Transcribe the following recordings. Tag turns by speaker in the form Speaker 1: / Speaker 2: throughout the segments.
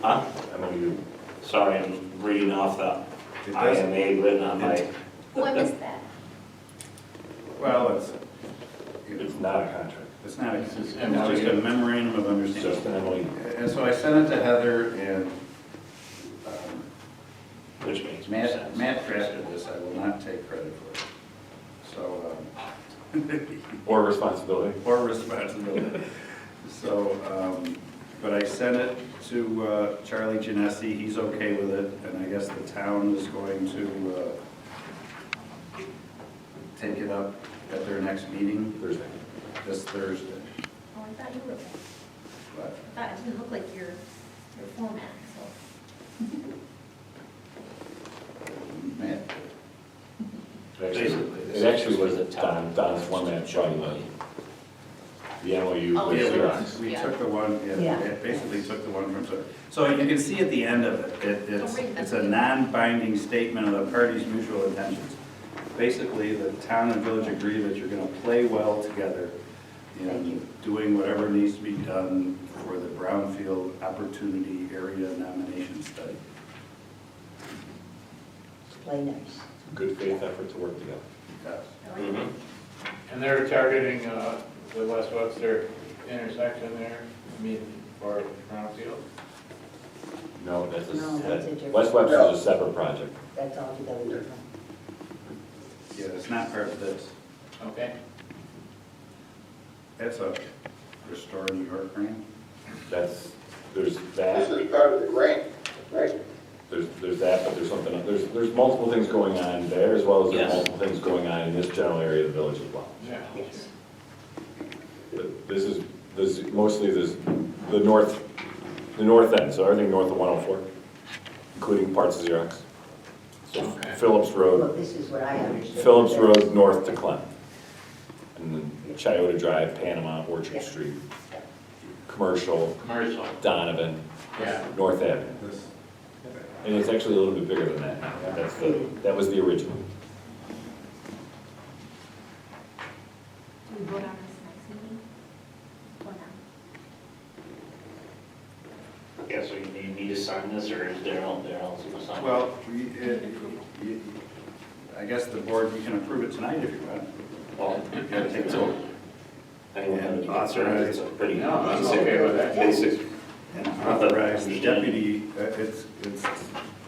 Speaker 1: Huh?
Speaker 2: I know you,
Speaker 1: Sorry, I'm reading off the
Speaker 2: it doesn't,
Speaker 1: IMA written on my,
Speaker 3: What is Oh, that?
Speaker 2: well, it's,
Speaker 1: it's not a contract.
Speaker 2: it's not, a- it's
Speaker 4: This
Speaker 2: just
Speaker 4: is
Speaker 2: a
Speaker 4: MOU.
Speaker 2: memorandum of
Speaker 1: It's just
Speaker 2: understanding.
Speaker 1: an MOU,
Speaker 2: And so I sent it to Heather and um,
Speaker 1: which makes more
Speaker 2: Matt,
Speaker 1: sense.
Speaker 2: Matt drafted this, I will not take credit for it. So, um,
Speaker 5: Or responsibility.
Speaker 2: or responsibility. So, um, but I sent it to uh, Charlie Genesi, he's okay with it, and I guess the town is going to uh, take it up at their next meeting
Speaker 5: Thursday.
Speaker 2: this Thursday.
Speaker 3: Oh, I thought you were,
Speaker 2: But
Speaker 3: I thought it didn't look like your, your format, so.
Speaker 2: Matt,
Speaker 1: Basically,
Speaker 5: It actually was Don, Don's format, Charlie Lilly. The MOU
Speaker 3: Oh,
Speaker 5: was
Speaker 3: yeah,
Speaker 5: yours.
Speaker 3: yeah.
Speaker 2: we took the one, yeah,
Speaker 6: Yeah.
Speaker 2: it basically took the one from, so- so you can see at the end of it, it, it's,
Speaker 3: Don't read that.
Speaker 2: it's a non-binding statement of the parties' mutual intentions. Basically, the town and village agree that you're gonna play well together
Speaker 6: Thank
Speaker 2: in
Speaker 6: you.
Speaker 2: doing whatever needs to be done for the brownfield opportunity area nomination study.
Speaker 6: Play nice.
Speaker 5: Good faith effort to work together.
Speaker 2: Yes.
Speaker 3: I like it.
Speaker 1: Mhm.
Speaker 4: And they're targeting uh, the West Webster intersection there, I mean, for Brownfield.
Speaker 5: No, that's a,
Speaker 6: No, that's a
Speaker 5: that-
Speaker 6: different-
Speaker 5: West Webster's a separate project.
Speaker 6: That's altogether different.
Speaker 2: Yeah, it's not part of this.
Speaker 4: Okay,
Speaker 2: It's a restore New York grant.
Speaker 5: That's, there's
Speaker 7: This
Speaker 5: that,
Speaker 7: is part of the grant, right?
Speaker 5: there's, there's that, but there's something, else. there's, there's multiple things going on there as well as there's
Speaker 1: Yes.
Speaker 5: multiple things going on in this general area of the village as well.
Speaker 4: yeah.
Speaker 6: Yes.
Speaker 5: But This is, this is mostly this, the north, the north end, so everything north of 104, including parts of Xerox. So
Speaker 4: Okay.
Speaker 5: Phillips Road,
Speaker 6: Well, this is what I understood.
Speaker 5: Phillips Road north to Clem. And then Chiota Drive, Panama,
Speaker 6: Yeah.
Speaker 5: Orchard Street, Commercial,
Speaker 4: Commercial,
Speaker 5: Donovan,
Speaker 4: yeah.
Speaker 5: North Avenue.
Speaker 2: This-
Speaker 5: And it's actually a little bit bigger than that now. That's the, that was the original.
Speaker 3: Do we vote on this next meeting? Or not?
Speaker 1: Yeah, so you need me to sign this, or is Daryl, Daryl's gonna sign it?
Speaker 2: Well, we- it- you- I guess the board, you can approve it tonight if you want.
Speaker 1: Well,
Speaker 2: You gotta take the vote.
Speaker 1: anyone have any concerns? It's a pretty.
Speaker 4: No, I'm okay with that.
Speaker 1: Basic.
Speaker 2: And authorize the deputy, uh, it's, it's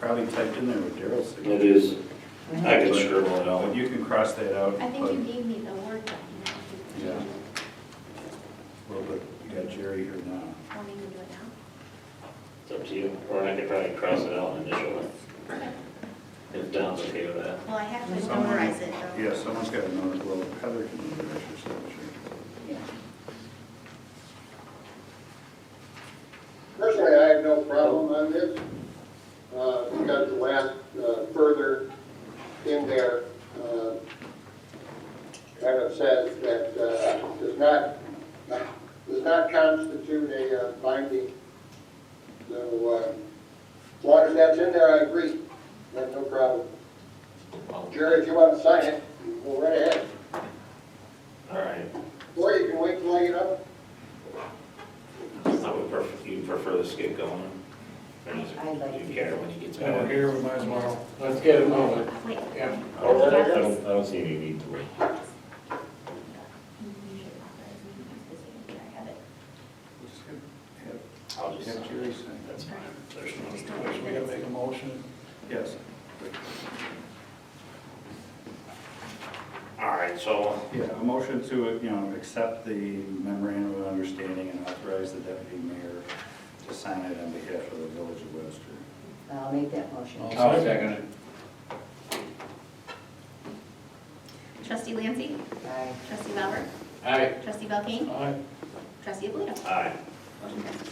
Speaker 2: probably typed in there with Daryl's
Speaker 1: It
Speaker 2: signature.
Speaker 1: is, I can scribble it
Speaker 2: But
Speaker 1: out.
Speaker 2: you can cross that out.
Speaker 3: I think you
Speaker 2: but-
Speaker 3: gave me the word document.
Speaker 2: Uh, Yeah. Well, but you got Jerry here now.
Speaker 3: Want me to do it now?
Speaker 1: It's up to you, or I could probably cross it out and initial it,
Speaker 3: Okay.
Speaker 1: if Don's okay with that.
Speaker 3: Well, I have to
Speaker 2: Someone-
Speaker 3: memorize it, though.
Speaker 2: Yeah, someone's got another, well, Heather can notarize her signature.
Speaker 7: Personally, I have no problem on this, uh, because the last, uh, further in there, uh, kind of says that, uh, does not, does not constitute a uh, binding. So, uh, as long as that's in there, I agree, I have no problem. Jerry, if you want to sign it, go right ahead,
Speaker 1: All right,
Speaker 7: or you can wait till I get up.
Speaker 1: I would prefer, you prefer this get going? Or does it-
Speaker 6: I like
Speaker 1: Do
Speaker 6: to-
Speaker 1: you care when he gets
Speaker 4: So we're
Speaker 1: back?
Speaker 4: here, we might as well, let's get it moving.
Speaker 3: Wait. Oh,
Speaker 4: Yeah.
Speaker 5: I
Speaker 1: Oh,
Speaker 5: don't, Oh, I don't- I don't see any need to wait.
Speaker 3: You usually authorize me to use the signature. I have it.
Speaker 2: We'll just have-
Speaker 1: I'll just,
Speaker 2: Have Jerry sign it.
Speaker 1: that's fine, there's no.
Speaker 4: We gotta make a motion.
Speaker 2: Yes.
Speaker 1: All right, so
Speaker 2: Yeah, a motion to, uh, you know, accept the memorandum of understanding and authorize the deputy mayor to sign it on behalf of the village of Webster.
Speaker 6: I'll make that motion.
Speaker 4: I'll second it.
Speaker 3: Trustee Lancy?
Speaker 6: Aye.
Speaker 3: Trustee Lauber?
Speaker 4: Aye.
Speaker 3: Trustee Belkane?
Speaker 4: Aye.
Speaker 3: Trustee Alito?
Speaker 1: Aye.
Speaker 3: Motion passes.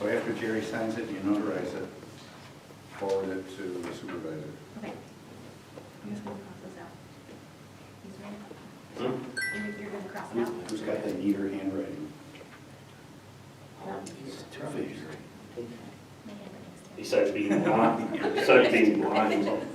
Speaker 2: So after Jerry signs it, you notarize it, forward it to the supervisor.
Speaker 3: Okay. I'm just gonna cross this out. These are
Speaker 1: Hmm?
Speaker 3: in. You're- You're gonna cross it out?
Speaker 2: Who- Who's got the neater handwriting?
Speaker 3: No.
Speaker 2: Jerry.
Speaker 3: My handwriting's terrible.
Speaker 1: besides being blind, besides being blind,